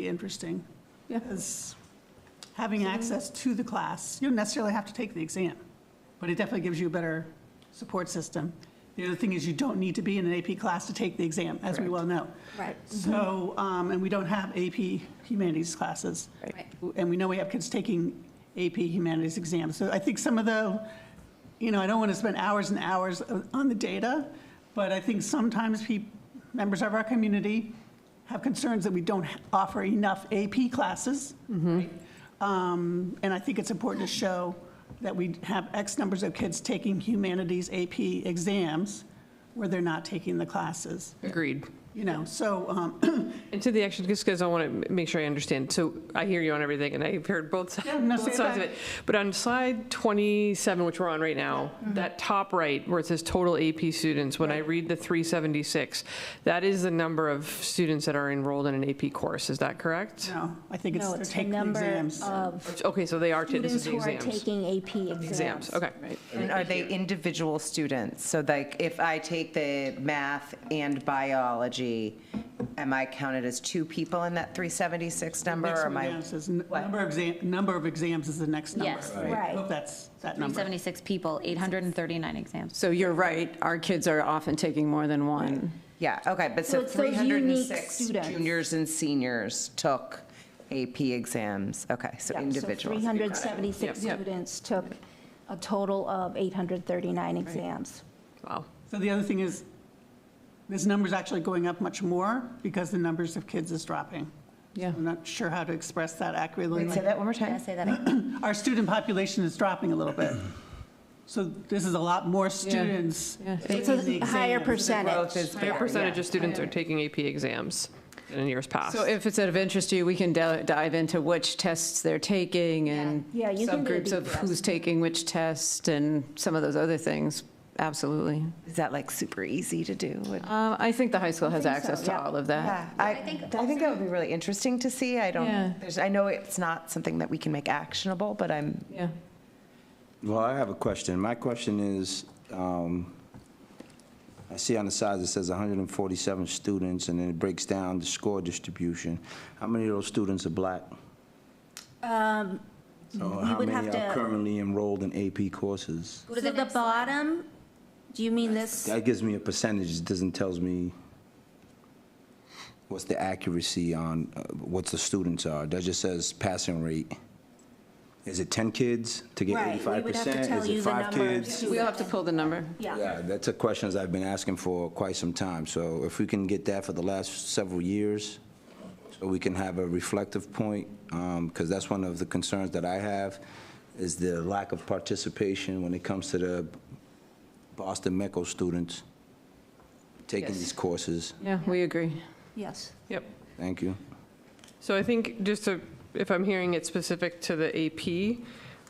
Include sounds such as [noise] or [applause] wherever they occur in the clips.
Be interesting, yes. Having access to the class, you don't necessarily have to take the exam, but it definitely gives you a better support system. The other thing is you don't need to be in an AP class to take the exam, as we well know. Right. So, um, and we don't have AP humanities classes. Right. And we know we have kids taking AP humanities exams. So I think some of the, you know, I don't want to spend hours and hours on the data, but I think sometimes peop members of our community have concerns that we don't offer enough AP classes. Mm-hmm. Um, And I think it's important to show that we have X numbers of kids taking humanities AP exams where they're not taking the classes, Agreed. you know? So um, And to the action, just because I want to make sure I understand. So I hear you on everything, and I've heard both sides Yeah, no, say both it sides of back. it. But on slide 27, which we're on right now, that top right, where it says total AP students, when I read the 376, that is the number of students that are enrolled in an AP course. Is that correct? No, I think it's No, they're it's the taking the number exams. of Okay, so they are, ta- this students is the who are exams. taking AP exams. Exams, okay. And are they individual students? So like, if I take the math and biology, am I counted as two people in that 376 number? Next or one am I- down says n- What? Number of exam, number of exams is the next number. Yes, I Right. Hope that's that number. 376 people, 839 exams. So you're right, our kids are often taking more than one. Yeah, okay, but So so it's those unique 306 students. juniors and seniors took AP exams. Okay, so Yeah, individual. So 376 Yep. students took a total of 839 exams. Wow. So the other thing is, this number's actually going up much more because the numbers of kids is dropping. Yeah. I'm not sure how to express that accurately. Say that one more Did I time. say that? again? Our student population is dropping a little bit. So this is a lot more students. It's a higher Growth percentage. is Higher bad, percentage yeah. of students are taking AP exams than in years past. So if it's of interest to you, we can del- dive into which tests they're taking and Yeah, you can do a subgroups of deep dive. who's taking which test and some of those other things, absolutely. Is that like super easy to do? Would- Uh, I think the high school has think access so, to yeah. all of that. Yeah, I, I think that would be really interesting to see. I Yeah. don't, there's, I know it's not something that we can make actionable, but I'm Yeah. Well, I have a question. My question is, um, I see on the side it says 147 students, and then it breaks down the score distribution. How many of those students are black? So Um, you how would many have to- are currently enrolled in AP courses? Go to the next slide. bottom, do you mean this? That gives me a percentage, it doesn't tells me what's the accuracy on uh, what the students are. That just says passing rate. Is it 10 kids to get 85%? Is it five kids? We'll have to pull the number. Yeah, that's a questions I've been asking for quite some time. So if we can get that for the last several years, so we can have a reflective point, because that's one of the concerns that I have, is the lack of participation when it comes to the Boston MECO students taking these courses. Yeah, we agree. Yes. Yep. Thank you. So I think just to, if I'm hearing it specific to the AP,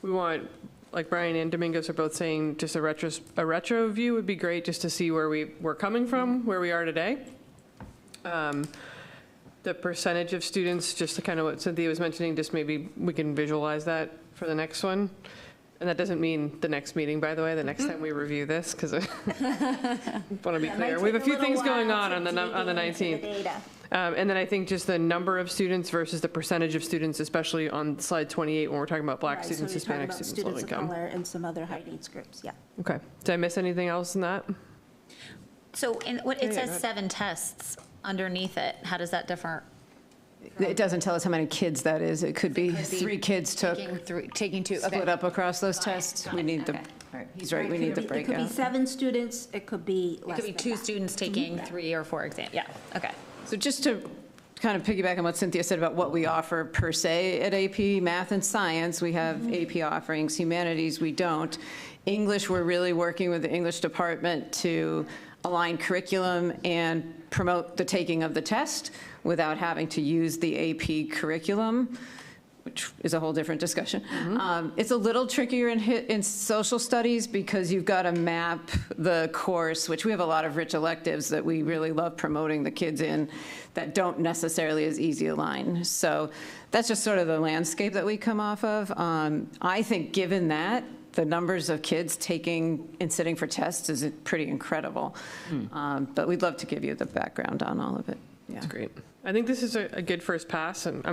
we want, like Brian and Domingos are both saying, just a retro, a retro view would be great just to see where we, we're coming from, where we are today. Um, The percentage of students, just to kind of what Cynthia was mentioning, just maybe we can visualize that for the next one. And that doesn't mean the next meeting, by the way, the next time we review this, because I want to be clear. We have a few things going on on the, num- on the 19th. Um, And then I think just the number of students versus the percentage of students, especially on slide 28, when we're talking about black students, Hispanic students, low income. And some other high needs groups, yeah. Okay, did I miss anything else in that? [clears throat] So in, what, it yeah, says go ahead. seven tests underneath it. How does that differ? It doesn't tell us how many kids that is. It could be three kids took, Taking three, taking two. split up across those tests. We need the, he's right, we need the It could be breakout. seven students, it could be It less could be than two that. students taking three or four exams. Yeah, okay. So just to kind of piggyback on what Cynthia said about what we offer per se at AP, math and science, we have AP offerings, humanities, we don't. English, we're really working with the English department to align curriculum and promote the taking of the test without having to use the AP curriculum which is a whole different discussion. Um, It's a little trickier in, hi- in social studies because you've got to map the course, which we have a lot of rich electives that we really love promoting the kids in that don't necessarily as easy align. So that's just sort of the landscape that we come off of. Um, I think, given that, the numbers of kids taking and sitting for tests is pretty incredible. Um, But we'd love to give you the background on all of it. Yeah. That's great. I think this is a, a good first pass, and I'm